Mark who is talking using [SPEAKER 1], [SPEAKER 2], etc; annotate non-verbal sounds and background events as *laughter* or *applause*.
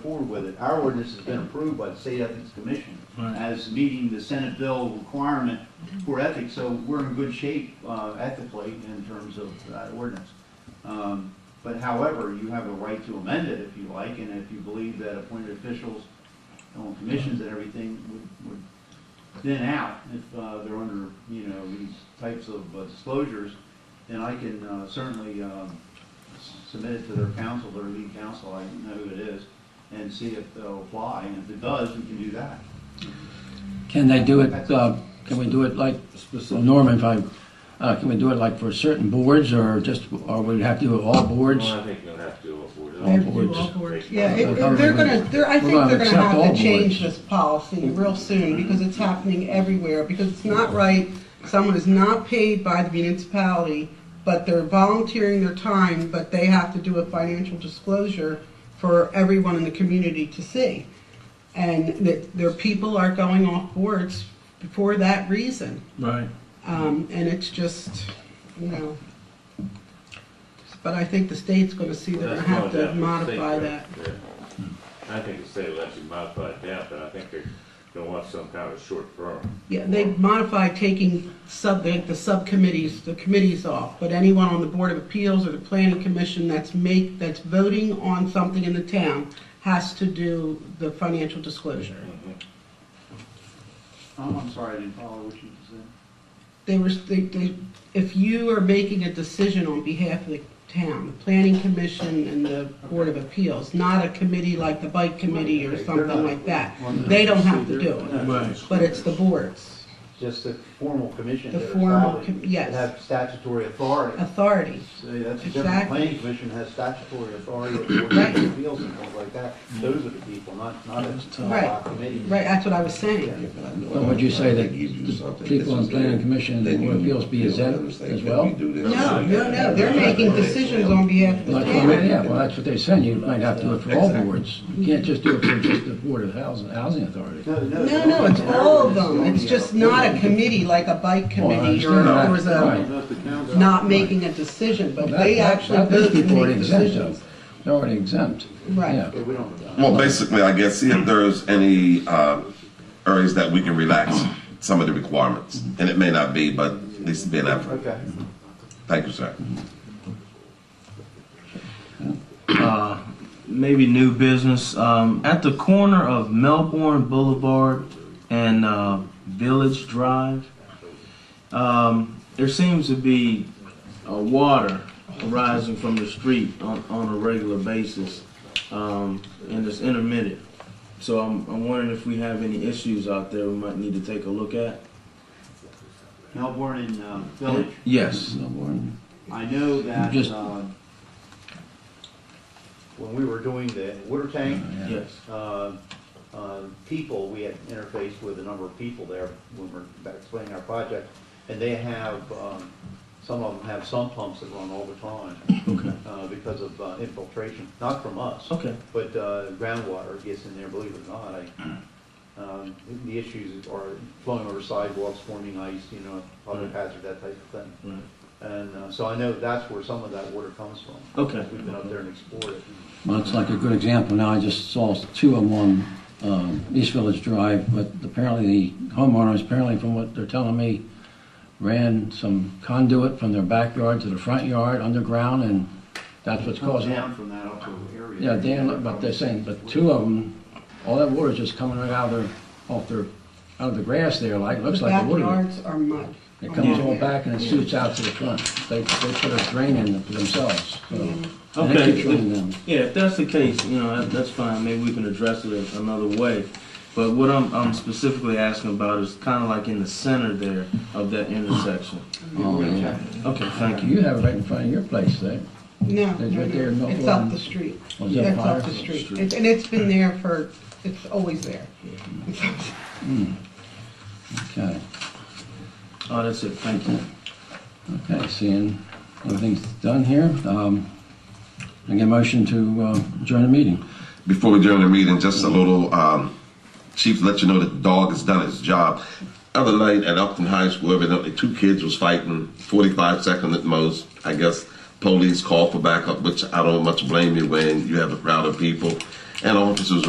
[SPEAKER 1] forward with it. Our ordinance has been approved by the State Ethics Commission
[SPEAKER 2] Right.
[SPEAKER 1] as meeting the Senate bill requirement for ethics, so we're in good shape uh, at the plate in terms of that ordinance. Um, But however, you have a right to amend it if you like, and if you believe that appointed officials on commissions and everything would, would thin out if uh, they're under, you know, these types of uh, disclosures, then I can uh, certainly um, s- submit it to their council, their lead council, I know who it is, and see if they'll apply, and if it does, we can do that.
[SPEAKER 3] Can they do it, uh, can we do it like, Norman, if I, uh, can we do it like for certain boards or just, or we have to do it all boards?
[SPEAKER 4] Well, I think you'll have to afford it.
[SPEAKER 3] They have to do
[SPEAKER 2] all boards.
[SPEAKER 5] Yeah, it- it- they're gonna, they're, I
[SPEAKER 3] We're gonna
[SPEAKER 5] think they're gonna
[SPEAKER 3] accept all
[SPEAKER 5] have to change
[SPEAKER 3] boards.
[SPEAKER 5] this policy real soon, because it's happening everywhere, because it's not right. Someone is not paid by the municipality, but they're volunteering their time, but they have to do a financial disclosure for everyone in the community to see. And that their people are going off boards for that reason.
[SPEAKER 2] Right.
[SPEAKER 5] Um, and it's just, you know. But I think the state's gonna see they're gonna
[SPEAKER 4] That's going
[SPEAKER 5] have to
[SPEAKER 4] down the state,
[SPEAKER 5] modify
[SPEAKER 4] right?
[SPEAKER 5] that.
[SPEAKER 4] Yeah. I think the state will actually modify it down, but I think they're gonna want some kind of short term.
[SPEAKER 5] Yeah, they modify taking sub, the the subcommittees, the committees off, but anyone on the Board of Appeals or the Planning Commission that's make, that's voting on something in the town has to do the financial disclosure.
[SPEAKER 1] Oh, I'm, I'm sorry, I didn't follow what you just said.
[SPEAKER 5] They were, they, they, if you are making a decision on behalf of the town, the Planning Commission and the Board of Appeals, not a committee like the Bike Committee or
[SPEAKER 1] Okay, they're
[SPEAKER 5] something
[SPEAKER 1] not-
[SPEAKER 5] like that,
[SPEAKER 1] on the
[SPEAKER 5] they don't have to do
[SPEAKER 1] procedure.
[SPEAKER 5] it,
[SPEAKER 2] Right.
[SPEAKER 5] but it's the boards,
[SPEAKER 1] Just the formal commission
[SPEAKER 5] The
[SPEAKER 1] that are
[SPEAKER 5] formal
[SPEAKER 1] filed,
[SPEAKER 5] com- yes.
[SPEAKER 1] that Have statutory authority.
[SPEAKER 5] authority.
[SPEAKER 1] Say, that's a different,
[SPEAKER 5] Exactly.
[SPEAKER 1] planning commission has statutory authority, over boards and appeals and things like that. Those are the people, not, not a
[SPEAKER 5] Right.
[SPEAKER 1] uh, committee.
[SPEAKER 5] Right, that's what I was saying.
[SPEAKER 3] Or would you say that the people on planning commission and the board of appeals be exempt as well?
[SPEAKER 5] No, no, no, they're making decisions on behalf of the
[SPEAKER 3] Like, well,
[SPEAKER 5] town.
[SPEAKER 3] yeah, well, that's what they're saying, you might have to do it for all boards. You can't just do it for just the Board of Housing, Housing Authority.
[SPEAKER 1] No, no.
[SPEAKER 5] No, no, it's all of them, it's just not a committee like a bike
[SPEAKER 3] Well, I
[SPEAKER 5] committee or
[SPEAKER 3] understand that.
[SPEAKER 5] or is a,
[SPEAKER 3] Right.
[SPEAKER 1] Not the council.
[SPEAKER 5] not making a decision, but
[SPEAKER 3] That-
[SPEAKER 5] they
[SPEAKER 3] that-
[SPEAKER 5] actually
[SPEAKER 3] that-
[SPEAKER 5] vote
[SPEAKER 3] Those
[SPEAKER 5] to
[SPEAKER 3] people are
[SPEAKER 5] make
[SPEAKER 3] exempt, though.
[SPEAKER 5] decisions.
[SPEAKER 3] They're already exempt.
[SPEAKER 5] Right.
[SPEAKER 3] Yeah.
[SPEAKER 1] Yeah, we don't. uh,
[SPEAKER 6] Well, basically, I guess, see if there's any uh, areas that we can relax some of the requirements. And it may not be, but at least it'd be an effort.
[SPEAKER 1] Okay.
[SPEAKER 6] Thank you, sir.
[SPEAKER 7] uh, maybe new business um, at the corner of Melbourne Boulevard and uh, Village Drive. Um, there seems to be uh, water rising from the street on, on a regular basis, um, and it's intermittent. So I'm, I'm wondering if we have any issues out there we might need to take a look at.
[SPEAKER 1] Melbourne and uh, Village,
[SPEAKER 7] Yes.
[SPEAKER 1] I know that,
[SPEAKER 3] Just-
[SPEAKER 1] uh, when we were doing the water tank,
[SPEAKER 7] Yes.
[SPEAKER 1] uh, uh, people, we had interfaced with a number of people there when we we're explaining our project, and they have, um, some of them have sump pumps that run all the time,
[SPEAKER 7] Okay.
[SPEAKER 1] uh, because of uh, infiltration, not from us.
[SPEAKER 7] Okay.
[SPEAKER 1] But uh, groundwater gets in there, believe it or not, I,
[SPEAKER 7] *clears throat*
[SPEAKER 1] um, the issues are flowing over sidewalks, forming ice, you know, public hazard, that type of thing.
[SPEAKER 7] Right.
[SPEAKER 1] And uh, so I know that's where some of that water comes from.
[SPEAKER 7] Okay.
[SPEAKER 1] We've been up there and explored it.
[SPEAKER 3] Well, it's like a good example. Now, I just saw two of them on um, East Village Drive, but apparently the homeowners, apparently from what they're telling me, ran some conduit from their backyard to the front yard underground, and that's what's causing it.
[SPEAKER 1] Down from that upper area.
[SPEAKER 3] Oh, Yeah, Dan, but they're saying, but two of them, all that water's just coming right out of their, off their, out of the grass there, like,
[SPEAKER 5] The
[SPEAKER 3] looks like the water.
[SPEAKER 5] backyards are mud.
[SPEAKER 3] It comes all back and it shoots out to the front. They, they put a drain in themselves, so. And it
[SPEAKER 7] Okay.
[SPEAKER 3] keeps running down.
[SPEAKER 7] Yeah, if that's the case, you know, that, that's fine. Maybe we can address it another way. But what I'm, I'm specifically asking about is kind of like in the center there of that intersection.
[SPEAKER 3] Oh, yeah.
[SPEAKER 7] Okay, thank you.
[SPEAKER 3] You have it right in front of your place, eh?
[SPEAKER 5] No,
[SPEAKER 3] It's
[SPEAKER 5] no,
[SPEAKER 3] right there in
[SPEAKER 5] no, it's
[SPEAKER 3] Melbourne.
[SPEAKER 5] up the street.
[SPEAKER 3] Was that
[SPEAKER 5] It's up
[SPEAKER 3] fire?
[SPEAKER 5] the street. It's- And it's been there for, it's always there.
[SPEAKER 3] Okay,
[SPEAKER 7] Oh, that's it. Thank you.
[SPEAKER 3] okay, seeing everything's done here, um, I get a motion to uh, adjourn the meeting.
[SPEAKER 6] Before we adjourn the meeting, just a little, um, Chief, let you know that the dog has done its job. Other night at Upton High School, evidently two kids was fighting, 45 seconds at most. I guess police called for backup, which I don't much blame you when you have a crowd of people. and officers